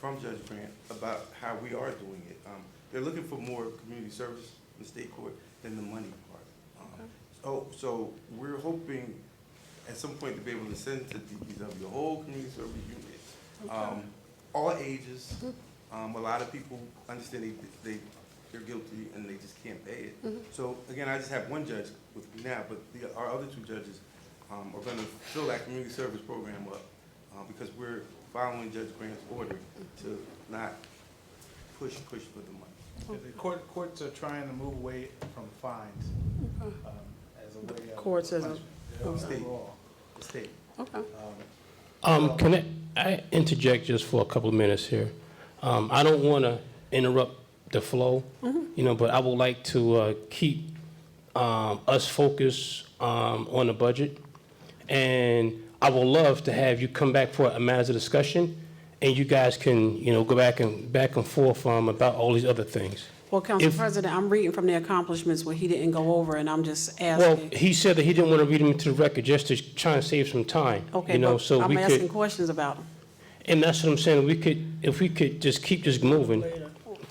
from Judge Grant about how we are doing it. Um, They're looking for more community service in state court than the money part. Um, So, so we're hoping at some point to be able to send to DPW a whole community service unit. um, All ages, um, a lot of people understand they, they, they're guilty and they just can't pay it. So again, I just have one judge with me now, but the, our other two judges, um, are gonna fill that community service program up, uh, because we're following Judge Grant's order to not push, push for the money. The court, courts are trying to move away from fines, um, as a way of. Courts as a- punishment, okay. overall. The state, Okay. Um, Um, can I, I interject just for a couple of minutes here? Um, I don't want to interrupt the flow, Mm-hmm. you know, but I would like to uh, keep um, us focused um, on the budget. And I would love to have you come back for a matters of discussion, and you guys can, you know, go back and back and forth um, about all these other things. Well, Council If- President, I'm reading from the accomplishments what he didn't go over, and I'm just Well, asking. he said that he didn't want to read them into the record just to try and save some time. Okay, you know, but so we I'm could. asking questions about them. And that's what I'm saying, we could, if we could just keep this moving.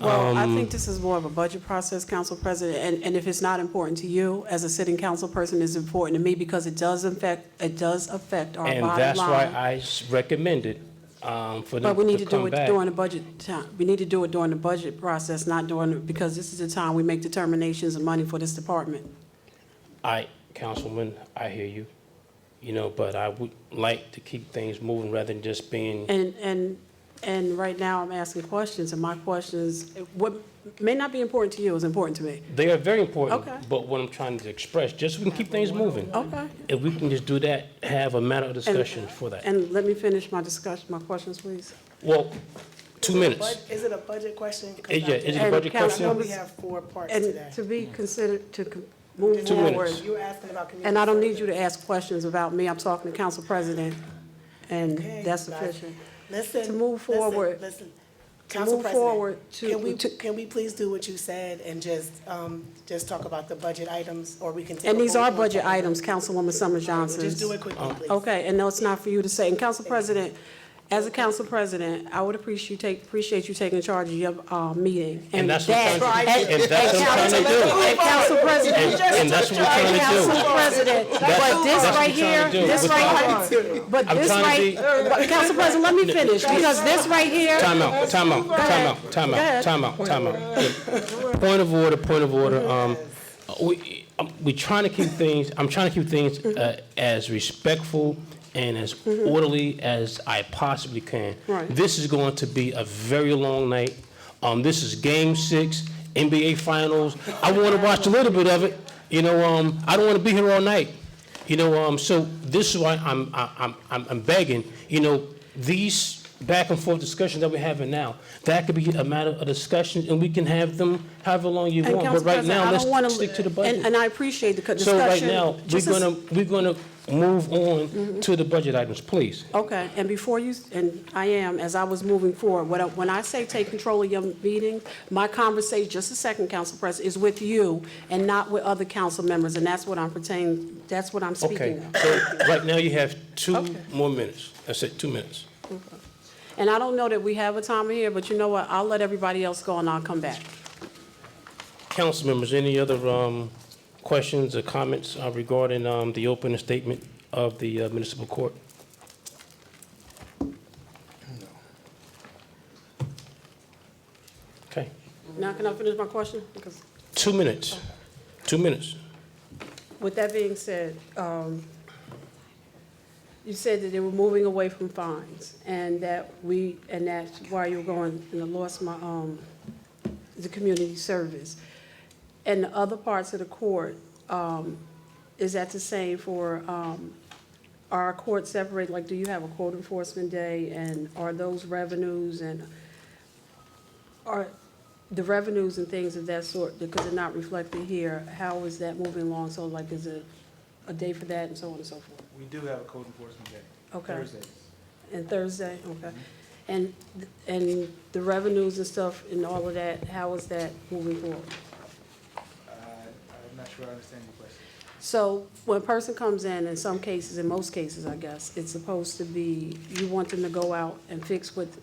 Well, um, I think this is more of a budget process, Council President, and, and if it's not important to you, as a sitting council person, it's important to me because it does affect, it does affect our And bottom that's why line. I s- recommended um, for them But we need to to do come it back. during the budget time, we need to do it during the budget process, not during, because this is the time we make determinations of money for this department. I, Councilman, I hear you, you know, but I would like to keep things moving rather than just being, And, and, and right now, I'm asking questions, and my questions, what may not be important to you is important to me. they are very important. Okay. But what I'm trying to express, just so we can keep things moving. Okay. If we can just do that, have a matter of discussion for that. And let me finish my discussion, my questions, please. Well, two Is it a minutes. bud- Is it a budget question? 'Cause Is- yeah, I- is it a And budget I know Councilwoman- question? we have four parts today. And to be considered, to co- move Two minutes. forward. You were asking about community. And I don't need you service. to ask questions about me, I'm talking to Council President, and Okay, that's gotcha. sufficient. Listen. To move listen, forward- Listen. to Council move President, forward to- Can we, to- can we please do what you said and just, um, just talk about the budget items or we can. take And a these vote are on budget something? items, Councilwoman Summers Johnson. Just do it Um, quickly, please. Okay, and no, it's not for you to say. And Council President, as a Council President, I would appreciate you take, appreciate you taking charge of your, uh, meeting. And that's what that- I'm trying to- and- and that's what and I'm Council- trying to do. And Council President. And- and that's what we're trying to and do. Council President, but this that's right what we're trying here, to do. this We're right here, but I'm this trying to right, be- but Council President, let me finish, because this right here. Time out, time out, time out, time ahead. out, time out, time out. Point of order, point of order. Um, we, um, we trying to keep things, I'm trying to keep things, uh, as respectful and as orderly as I possibly can. Mm-hmm. Right. This is going to be a very long night. Um, this is game six, NBA finals. I want to watch a little bit of it. You know, um, I don't want to be here all night. You know, um, so this is why I'm, I- I'm, I'm, I'm begging, you know, these back and forth discussions that we're having now, that could be a matter of discussion and we can have them however long you And want. But Council right President, I now, don't wanna- let's stick to the and- budget. And I appreciate the co- So discussion. right now, we're Just Mm-hmm. as- gonna, we're gonna move on to the budget items, please. Okay, and before you, and I am, as I was moving forward, when I, when I say take control of your meeting, my conversation, just a second, Council President, is with you and not with other council members, and that's what I'm pertaining, that's what I'm Okay, speaking of. so right now you have two Okay. more minutes. That's it, two minutes. And I don't know that we have a timer here, but you know what, I'll let everybody else go and I'll come back. Council members, any other um, questions or comments uh, regarding um, the opening statement of the uh, municipal court? Okay, Now, can I finish my question? Because two minutes, two minutes. With that being said, um, you said that they were moving away from fines, and that we, and that's why you're going, and I lost my, um, the community service. And the other parts of the court, um, is that the same for, um, are our courts separate? Like, do you have a court enforcement day, and are those revenues, and are the revenues and things of that sort, because they're not reflected here, how is that moving along? So like, is it a day for that and so on and so forth? We do have a code enforcement day. Okay. Thursdays. And Thursday, okay. And, and the revenues and stuff and all of that, how is that moving forward? Uh, I'm not sure I understand your question. So when a person comes in, in some cases, in most cases, I guess, it's supposed to be, you want them to go out and fix what